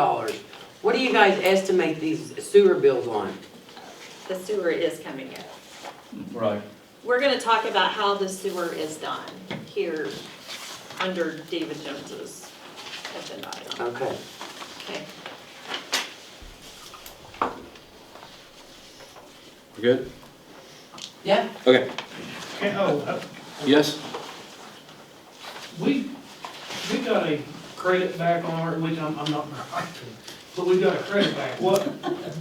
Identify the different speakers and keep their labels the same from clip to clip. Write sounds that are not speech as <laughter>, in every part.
Speaker 1: dollars. What do you guys estimate these sewer bills on?
Speaker 2: the sewer is coming up.
Speaker 3: Right,
Speaker 2: We're gonna talk about how the sewer is done here under David Jones's agenda item,
Speaker 1: Okay,
Speaker 2: okay?
Speaker 4: We're good?
Speaker 1: Yeah.
Speaker 4: Okay,
Speaker 5: Okay, oh, uh,
Speaker 4: yes?
Speaker 5: we, we got a credit back on our, which I'm, I'm <laughs> not, but we got a credit back. What,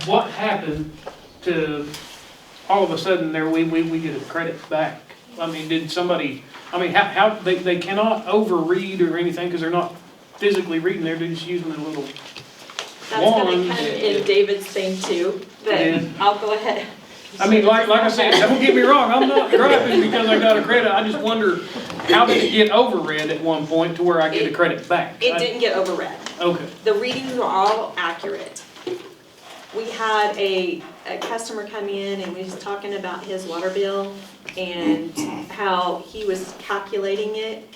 Speaker 5: what happened to, all of a sudden there, we, we, we get a credit back? I mean, did somebody, I mean, how, how, they, they cannot overread or anything because they're not physically reading, they're just using their little,
Speaker 2: That's gonna
Speaker 5: One.
Speaker 2: come in David's thing too, but
Speaker 5: Yeah.
Speaker 2: I'll go ahead.
Speaker 5: I mean, like, like I said, don't get me wrong, I'm not griping because I got a credit. I just wonder, how did it get overread at one point to where I get a credit back?
Speaker 2: It didn't get overread.
Speaker 5: Okay.
Speaker 2: The readings were all accurate. We had a, a customer come in and we was talking about his water bill and how he was calculating it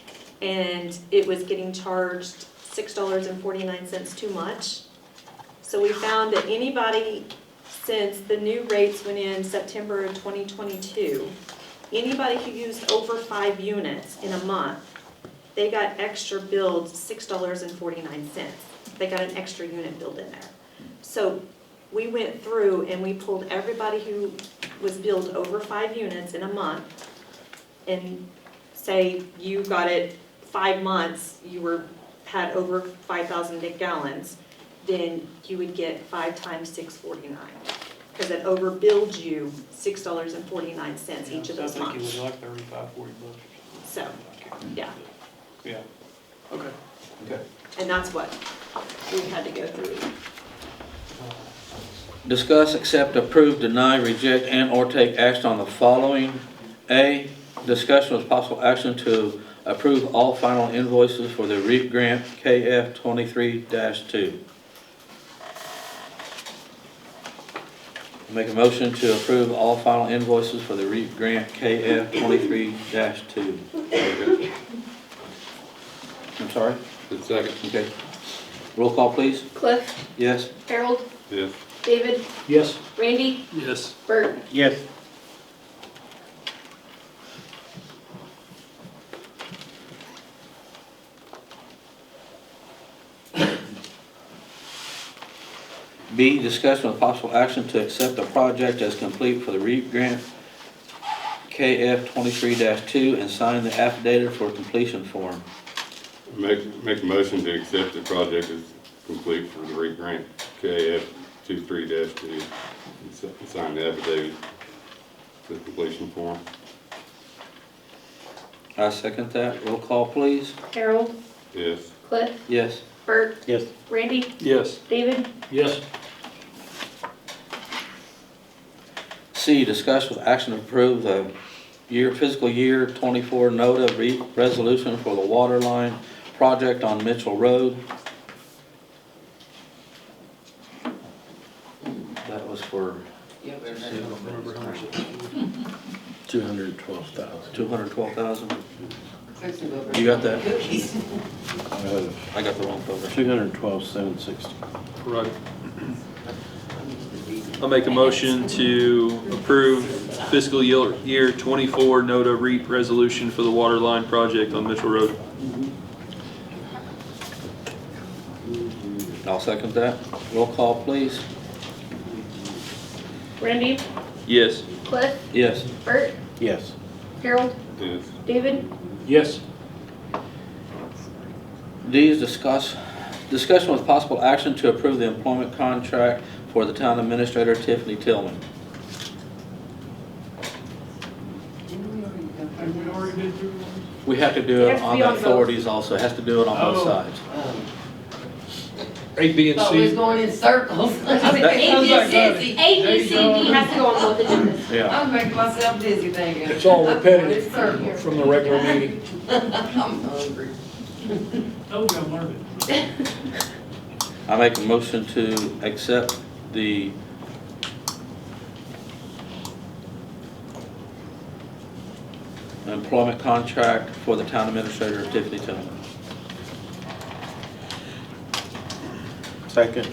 Speaker 2: and it was getting charged six dollars and forty-nine cents too much. So we found that anybody, since the new rates went in September of twenty twenty-two, anybody who used over five units in a month, they got extra billed six dollars and forty-nine cents. They got an extra unit billed in there. So we went through and we pulled everybody who was billed over five units in a month and say you got it five months, you were, had over five thousand gallons, then you would get five times six forty-nine. Cause it overbilled you six dollars and forty-nine cents each of those
Speaker 5: I think it was
Speaker 2: months.
Speaker 5: like thirty-five, forty bucks.
Speaker 2: So, yeah.
Speaker 5: Yeah, okay.
Speaker 4: Okay.
Speaker 2: And that's what we had to go through.
Speaker 4: Discuss, accept, approve, deny, reject, and/or take action on the following. A, discussion with possible action to approve all final invoices for the REAP grant KF twenty-three two. Make a motion to approve all final invoices for the REAP grant KF twenty-three two. I'm sorry?
Speaker 6: Second.
Speaker 4: Okay. Roll call, please.
Speaker 7: Cliff,
Speaker 4: Yes?
Speaker 7: Harold,
Speaker 6: Yes.
Speaker 7: David,
Speaker 3: yes.
Speaker 7: Randy,
Speaker 3: Yes.
Speaker 7: Bert.
Speaker 4: Yes. B, discussion with possible action to accept the project as complete for the REAP grant KF twenty-three two and sign the affidavit for completion form.
Speaker 6: Make, make a motion to accept the project as complete for the REAP grant KF two-three dash two. and si- and Sign the affidavit for the completion form.
Speaker 4: I second that. Roll call, please.
Speaker 7: Harold,
Speaker 6: Yes.
Speaker 7: Cliff,
Speaker 4: Yes.
Speaker 7: Bert,
Speaker 3: Yes.
Speaker 7: Randy,
Speaker 3: Yes.
Speaker 7: David.
Speaker 3: Yes.
Speaker 4: C, discuss with action to approve the year, fiscal year twenty-four NODA re- resolution for the water line project on Mitchell Road. That was for
Speaker 8: Two hundred and twelve thousand.
Speaker 4: two hundred twelve thousand. You got that?
Speaker 9: <laughs>
Speaker 4: I got the wrong folder.
Speaker 8: Uh, Two hundred and twelve, seven sixty.
Speaker 3: Right. I'll make a motion to approve fiscal year, year twenty-four NODA REAP E resolution for the water line project on Mitchell Road.
Speaker 4: I'll second that. Roll call, please.
Speaker 7: Randy,
Speaker 3: Yes.
Speaker 7: Cliff,
Speaker 4: Yes.
Speaker 7: Bert,
Speaker 8: Yes.
Speaker 7: Harold,
Speaker 6: Yes.
Speaker 7: David.
Speaker 3: Yes.
Speaker 4: D is discuss, discussion with possible action to approve the employment contract for the town administrator Tiffany Tillman.
Speaker 5: Have we already been through one?
Speaker 4: We have to do
Speaker 7: It
Speaker 4: it
Speaker 7: has to
Speaker 4: on
Speaker 7: be
Speaker 4: the
Speaker 7: on both.
Speaker 4: authorities also, has to do it on both
Speaker 5: Oh.
Speaker 4: sides.
Speaker 3: A, B, and
Speaker 9: Thought we was
Speaker 3: C.
Speaker 9: going in circles.
Speaker 5: sounds like that.
Speaker 7: A, B, C, D has to go on both agendas.
Speaker 4: Yeah.
Speaker 9: I'm making myself dizzy thinking.
Speaker 8: It's all
Speaker 9: I'm
Speaker 8: repetitive
Speaker 9: going in circles.
Speaker 8: from the regular meeting.
Speaker 9: I'm hungry.
Speaker 5: Oh, we gotta learn it.
Speaker 4: I make a motion to accept the employment contract for the town administrator Tiffany Tillman.
Speaker 8: Second.